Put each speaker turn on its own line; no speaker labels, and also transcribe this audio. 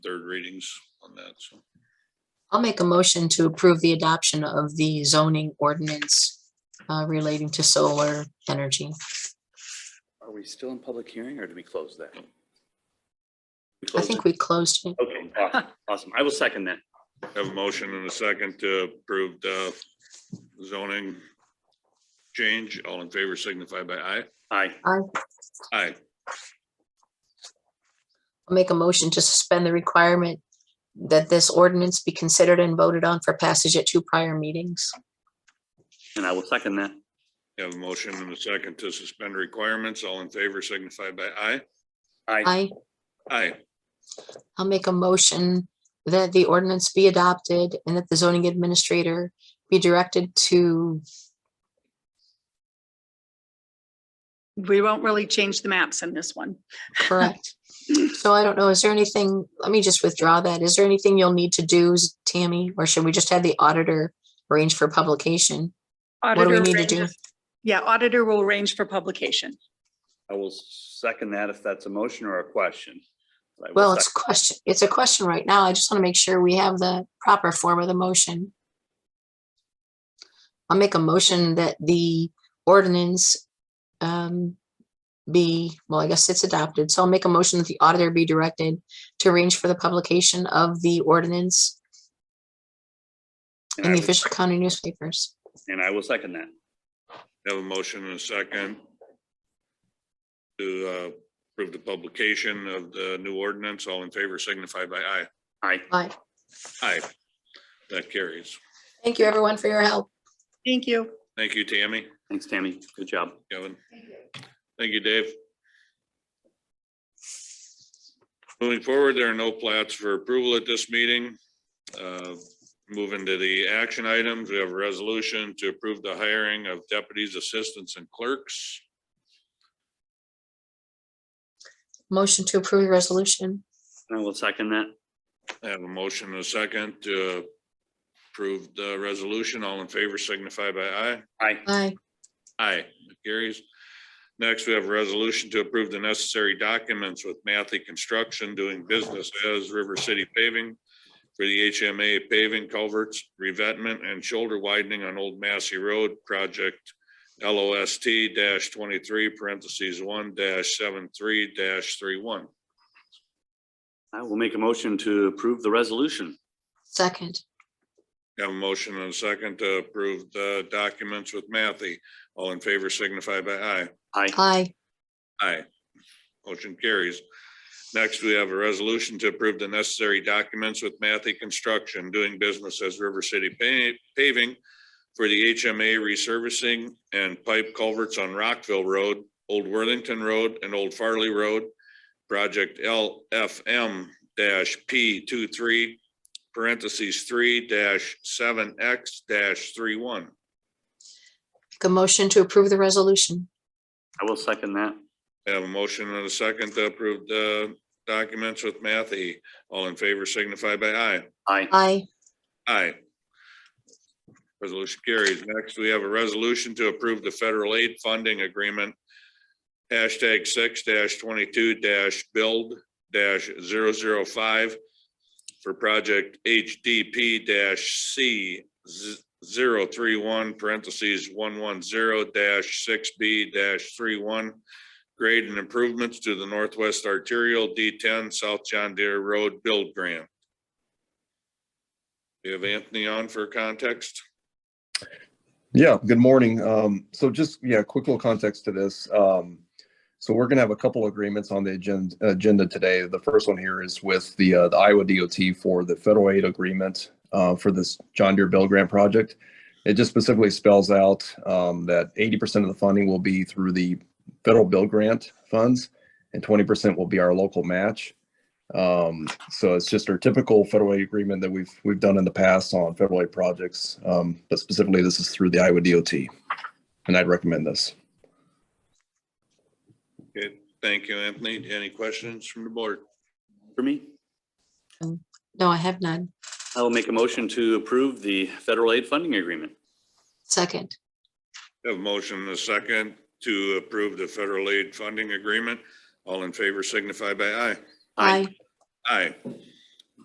third readings on that, so.
I'll make a motion to approve the adoption of the zoning ordinance uh, relating to solar energy.
Are we still in public hearing or did we close that? We
I
closed
think
it?
we closed it.
Okay, awesome, awesome. I will second that.
Have a motion and a second to approve the zoning change. All in favor signify by aye.
Aye.
Aye.
I'll make a motion to suspend the requirement that this ordinance be considered and voted on for passage at two prior meetings.
And I will second that.
Have a motion and a second to suspend requirements. All in favor signify by aye.
Aye.
I,
Aye.
I'll make a motion that the ordinance be adopted and that the zoning administrator be directed to,
We won't really change the maps in this one.
correct. So I don't know, is there anything, let me just withdraw that. Is there anything you'll need to do, Tammy? Or should we just have the auditor arrange for publication? do we
Auditor
need to do?
ranges- Yeah, auditor will arrange for publication.
I will second that if that's a motion or a question. I will
Well, it's a
sec-
question, it's a question right now. I just want to make sure we have the proper form of the motion. I'll make a motion that the ordinance um, be, well, I guess it's adopted. So I'll make a motion that the auditor be directed to arrange for the publication of the ordinance
and I
in the
will-
official county newspapers.
And I will second that.
Have a motion and a second to uh, approve the publication of the new ordinance. All in favor signify by aye.
Aye.
Bye.
Aye. That carries.
Thank you, everyone, for your help.
Thank you.
Thank you, Tammy,
Thanks, Tammy. Good job.
Kevin. Thank you, Dave. Moving forward, there are no plats for approval at this meeting. Uh, Moving to the action items, we have a resolution to approve the hiring of deputies, assistants, and clerks.
Motion to approve the resolution.
And I will second that.
I have a motion and a second to approve the resolution. All in favor signify by aye.
Aye.
Aye.
Aye. Carries. Next, we have a resolution to approve the necessary documents with Matthew Construction doing business as River City Paving for the HMA paving culverts, revetment and shoulder widening on Old Massey Road Project LOST twenty-three parentheses one dash seven three dash three one.
I will make a motion to approve the resolution.
Second.
Have a motion and a second to approve the documents with Matthew. All in favor signify by aye.
Aye.
Aye.
Aye. Motion carries. Next, we have a resolution to approve the necessary documents with Matthew Construction doing business as River City Pa- Paving for the HMA resurfacing and pipe culverts on Rockville Road, Old Worthington Road, and Old Farley Road. Project LFM P 23 parentheses three seven X dash three one.
Make a motion to approve the resolution.
I will second that.
I Have a motion and a second to approve the documents with Matthew. All in favor signify by aye.
Aye.
Aye.
Aye. Resolution carries. Next, we have a resolution to approve the federal aid funding agreement. Hashtag six twenty-two build 5 for project HDP C 31 parentheses one one zero six B dash Grade and improvements to the Northwest Arterial D ten South John Deere Road Build Grant. Do you have Anthony on for context?
Yeah, good morning. Um, so just, yeah, quick little context to this. Um, so we're gonna have a couple agreements on the agenda, agenda today. The first one here is with the, uh, the Iowa DOT for the federal aid agreement, uh, for this John Deere Bill Grant project. It just specifically spells out, um, that eighty percent of the funding will be through the federal bill grant funds and twenty percent will be our local match. Um, so it's just our typical federal aid agreement that we've, we've done in the past on federal aid projects. Um, but specifically, this is through the Iowa DOT. And I'd recommend this.
Okay, thank you, Anthony. Any questions from the board?
For me,
No, I have none.
I will make a motion to approve the federal aid funding agreement.
Second.
Have a motion and a second to approve the federal aid funding agreement. All in favor signify by aye. Aye.